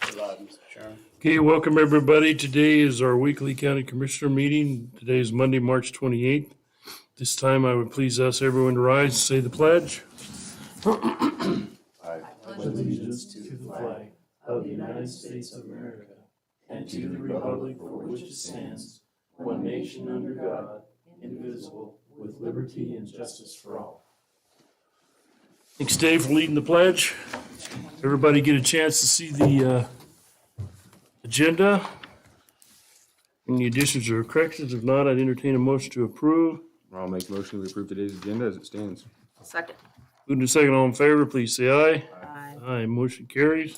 provide, Mr. Chairman. Okay, welcome everybody. Today is our weekly county commissioner meeting. Today is Monday, March 28th. This time I would please ask everyone to rise, and say the pledge. Thanks, Dave, for leading the pledge. Everybody get a chance to see the uh, agenda. Any additions or corrections? If not, I'd entertain a motion to approve. I'll make motion to approve today's agenda as it stands. Second. Moving to second, all in favor, please say aye. Aye, motion carries.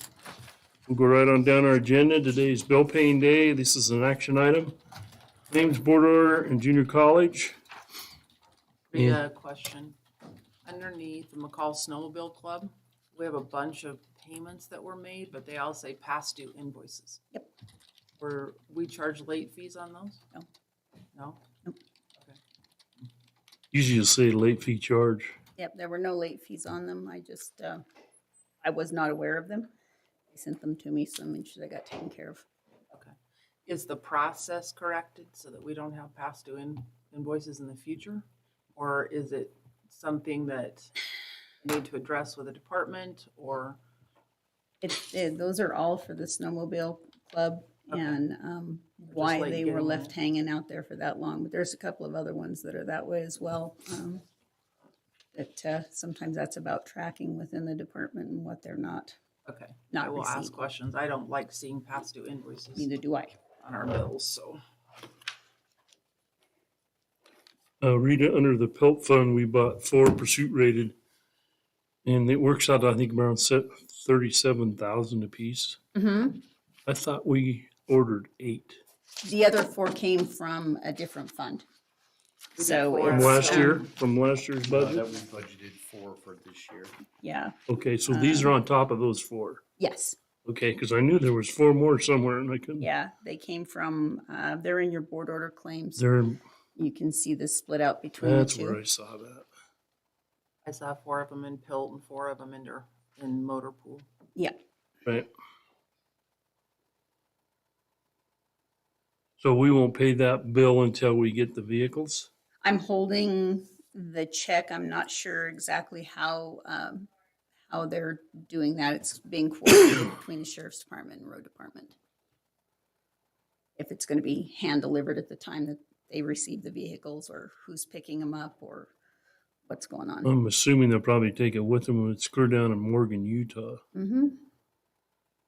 We'll go right on down our agenda. Today is bill paying day. This is an action item. Claims board order and junior college. We Yeah. got a question. Underneath the McCall Snowmobile Club, we have a bunch of payments that were made, but they all say past due invoices. Yep. Were, we charge late fees on those? No. No? Usually you say late fee charge. Yep, there were no late fees on them. I just, uh, I was not aware of them. They sent them to me, so I made sure they got taken care of. Okay. Is the process corrected so that we don't have past due in- invoices in the future? Or is it something that we need to address with a department or? It's, eh, those are all for the snowmobile club Okay. and, um, just why late they were getting left it. hanging out there for that long, but there's a couple of other ones that are that way as well. um, That, uh, sometimes that's about tracking within the department and what they're not, Okay, I not will ask receiving. questions. I don't like seeing past due invoices Neither do I. on our bills, so. Uh, Rita, under the PELT fund, we bought four pursuit rated. And it works out, I think, around thirty-seven thousand apiece. Mm-hmm. I thought we ordered eight. The other four came from a different fund. did So. four. From it's, last um, year, from last year's Uh, That budget? we budgeted for for this year. Yeah, Okay, so these are on top of those four. yes. Okay, because I knew there was four more somewhere and I couldn't. Yeah, they came from, uh, they're in your board order claims. There, You can see the split out between the that's where I two. saw that. I saw four of them in Pilt and four of them in, Der- in Motor Pool. Yeah, Right. So we won't pay that bill until we get the vehicles? I'm holding the check. I'm not sure exactly how, um, how they're doing that. It's being coordinated between the sheriff's department and road department. If it's gonna be hand delivered at the time that they receive the vehicles or who's picking them up or what's going on. I'm assuming they'll probably take it with them when it's clear down in Morgan, Utah. Mm-hmm.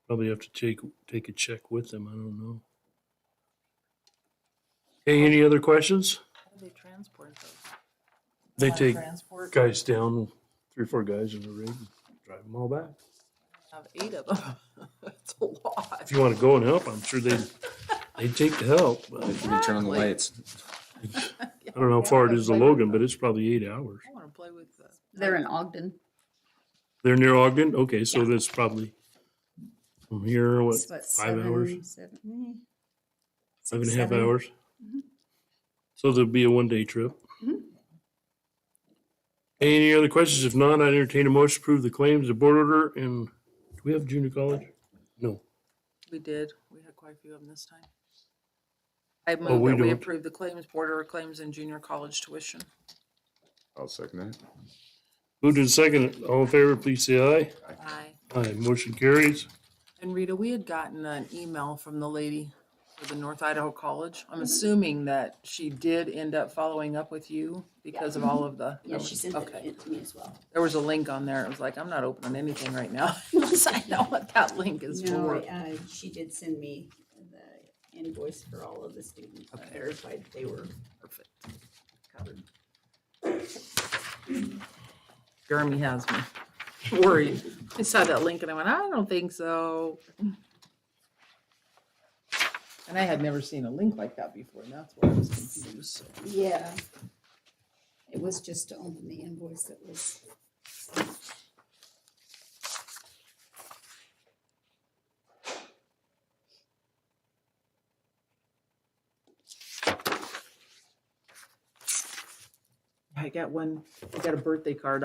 Probably have to take, take a check with them. I don't know. Hey, any other questions? How do they transport those? They take Transport, guys down, three, or four guys in the rig, and drive them all back. have eight of them. That's a lot. If you want to go and help, I'm sure they, they'd take the help. but I If you can turn on the Exactly. lights. don't know how far it is to Logan, but it's probably eight hours. I want to play with the. They're in Ogden. They're near Ogden? Okay, so that's probably from here, what, It's what, five hours, seven- seven- eh, five and a six, half seven. hours? So there'll be a one-day trip. Any other questions? If not, I entertain a motion to approve the claims, the board order, and do we have junior college? No. We did, we had quite a few of them this time. I we move that we don't. approve the claims, border claims and junior college tuition. I'll second that. Moved and second. All in favor, please say aye. Aye. Aye, motion carries. And Rita, we had gotten an email from the lady for the North Idaho College. I'm assuming that she did end up following up with you because of all of the. Yeah, she sent Okay. it to me as well. There was a link on there. It was like, I'm not opening anything right now unless I know what that link is No, for. I, uh, she did send me the invoice for all of the students. I Okay. verified they were Perfect. covered. Jeremy has me worried. I saw that link and I went, I don't think so. And I had never seen a link like that before and that's why I was confused. so. Yeah. It was just to open the invoice that was. I got one, I got a birthday card